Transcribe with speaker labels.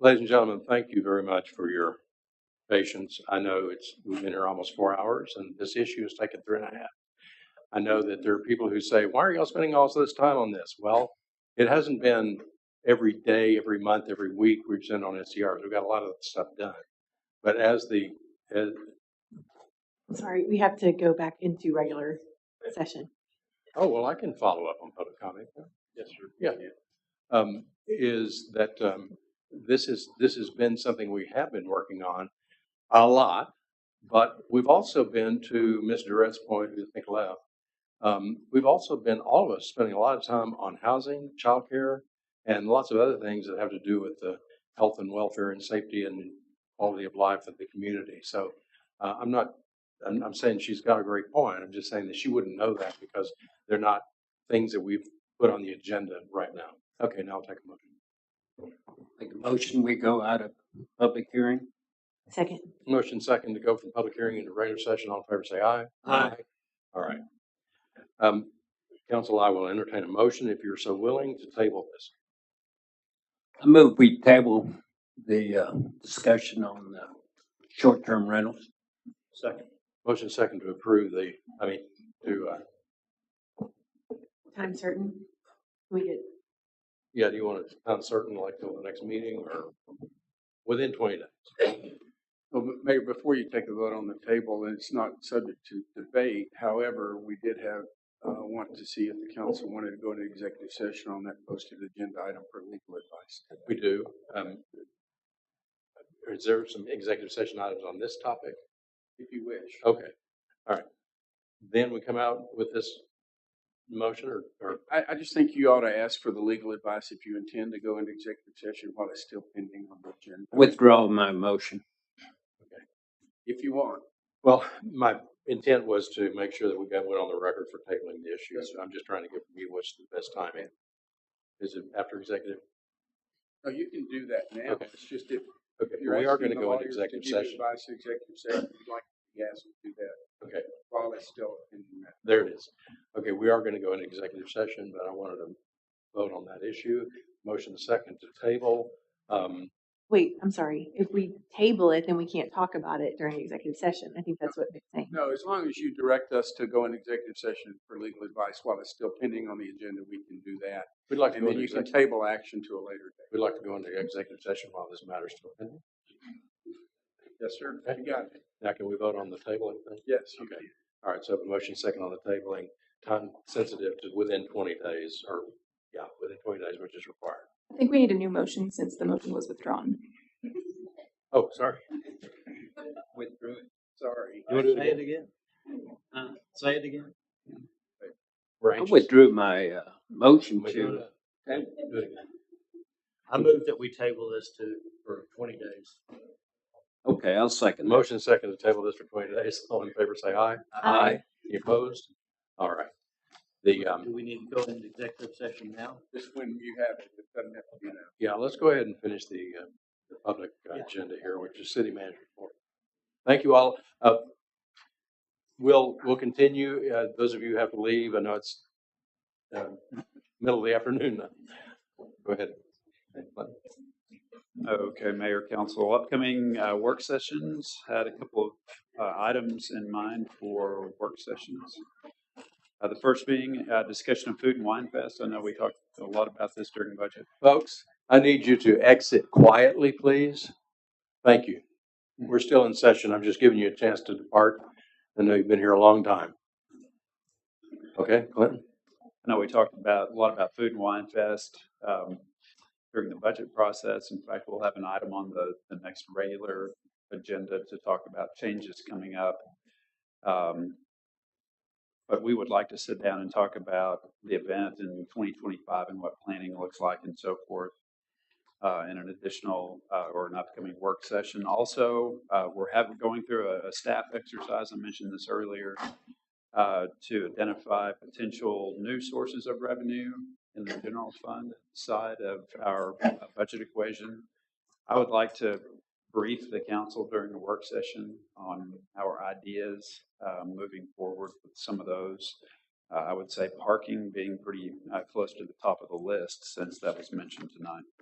Speaker 1: Ladies and gentlemen, thank you very much for your patience. I know it's, we've been here almost four hours and this issue has taken three and a half. I know that there are people who say, why are y'all spending all this time on this? Well, it hasn't been every day, every month, every week we've sent on SCRs. We've got a lot of stuff done. But as the, as,
Speaker 2: Sorry, we have to go back into regular session.
Speaker 1: Oh, well, I can follow up on public comment. Yes, sir. Yeah. Um, is that, um, this is, this has been something we have been working on a lot, but we've also been to Ms. Durrett's point, who I think left. Um, we've also been, all of us, spending a lot of time on housing, childcare, and lots of other things that have to do with the health and welfare and safety and quality of life of the community. So, uh, I'm not, I'm, I'm saying she's got a great point. I'm just saying that she wouldn't know that because they're not things that we've put on the agenda right now. Okay, now I'll take a motion.
Speaker 3: Make a motion, we go out of public hearing?
Speaker 2: Second,
Speaker 1: Motion second to go from public hearing into regular session. All in favor, say aye.
Speaker 3: Aye.
Speaker 1: All right. Um, council, I will entertain a motion if you're so willing to table this.
Speaker 3: I move we table the, uh, discussion on, uh, short-term rentals.
Speaker 1: Second. Motion second to approve the, I mean, to, uh,
Speaker 2: time certain? We did.
Speaker 1: yeah, do you want to sound certain like till the next meeting or within twenty days?
Speaker 4: Well, but Mayor, before you take the vote on the table, and it's not subject to debate, however, we did have, uh, want to see if the council wanted to go into executive session on that posted agenda item for legal advice.
Speaker 1: We do. Um, is there some executive session items on this topic?
Speaker 4: If you wish.
Speaker 1: Okay, all right. Then we come out with this motion or, or,
Speaker 4: I, I just think you ought to ask for the legal advice if you intend to go into executive session while it's still pending on the agenda.
Speaker 3: Withdraw my motion.
Speaker 4: If you want.
Speaker 1: well, my intent was to make sure that we got one on the record for tabling the issue. So I'm just trying to give you what's the best timing. Is it after executive?
Speaker 4: No, you can do that now.
Speaker 1: Okay.
Speaker 4: It's just if
Speaker 1: Okay,
Speaker 4: if you're
Speaker 1: we are going
Speaker 4: asking the
Speaker 1: to go
Speaker 4: lawyers
Speaker 1: into
Speaker 4: to
Speaker 1: executive
Speaker 4: give
Speaker 1: session.
Speaker 4: advice in executive session, you'd like to ask them to do that.
Speaker 1: Okay.
Speaker 4: While it's still pending.
Speaker 1: There it is. Okay, we are going to go into executive session, but I wanted to vote on that issue. Motion second to table. Um,
Speaker 2: Wait, I'm sorry. If we table it, then we can't talk about it during executive session. I think that's what they're saying.
Speaker 4: No, as long as you direct us to go in executive session for legal advice while it's still pending on the agenda, we can do that.
Speaker 1: we'd like to
Speaker 4: And
Speaker 1: go
Speaker 4: then
Speaker 1: into
Speaker 4: you can
Speaker 1: executive.
Speaker 4: table action to a later date.
Speaker 1: We'd like to go into executive session while this matter's still pending.
Speaker 4: Yes, sir. You got it.
Speaker 1: Now, can we vote on the table? and things?
Speaker 4: Yes, you
Speaker 1: Okay.
Speaker 4: can.
Speaker 1: All right, so I have a motion second on the tabling, time sensitive to within twenty days, or, yeah, within twenty days, which is required.
Speaker 5: I think we need a new motion since the motion was withdrawn.
Speaker 1: Oh, sorry.
Speaker 3: Withdrew it.
Speaker 4: Sorry.
Speaker 1: You wanna do it again?
Speaker 3: again? Uh, say it again?
Speaker 1: We're
Speaker 3: I
Speaker 1: anxious.
Speaker 3: withdrew my, uh, motion
Speaker 1: We do
Speaker 3: to,
Speaker 1: it. Do it again.
Speaker 6: I move that we table this to, for twenty days.
Speaker 3: okay, I'll second that.
Speaker 1: Motion second to table this for twenty days. All in favor, say aye.
Speaker 3: Aye.
Speaker 1: Any opposed? All right. The, um,
Speaker 6: Do we need to go into executive session now?
Speaker 4: Just when you have it, it doesn't have to be now.
Speaker 1: yeah, let's go ahead and finish the, uh, the public uh,
Speaker 6: Yeah.
Speaker 1: agenda here, which is city manager report. Thank you all. Uh, we'll, we'll continue. Uh, those of you who have to leave, I know it's, uh, middle of the afternoon now. Go ahead.
Speaker 7: Okay, Mayor, Council, upcoming uh, work sessions, had a couple of uh, items in mind for work sessions. Uh, The first being uh, discussion of Food and Wine Fest. I know we talked a lot about this during budget.
Speaker 1: Folks, I need you to exit quietly, please. Thank you. We're still in session. I'm just giving you a chance to depart. I know you've been here a long time. Okay, Clinton?
Speaker 7: I know we talked about, a lot about Food and Wine Fest um, during the budget process. In fact, we'll have an item on the, the next regular agenda to talk about changes coming up. Um, But we would like to sit down and talk about the event in 2025 and what planning looks like and so forth uh, in an additional uh, or an upcoming work session. Also, uh, we're having, going through a- a staff exercise. I mentioned this earlier uh, to identify potential new sources of revenue in the general fund side of our uh, budget equation. I would like to brief the council during the work session on our ideas uh, moving forward with some of those. Uh, I would say parking being pretty uh, close to the top of the list since that was mentioned tonight.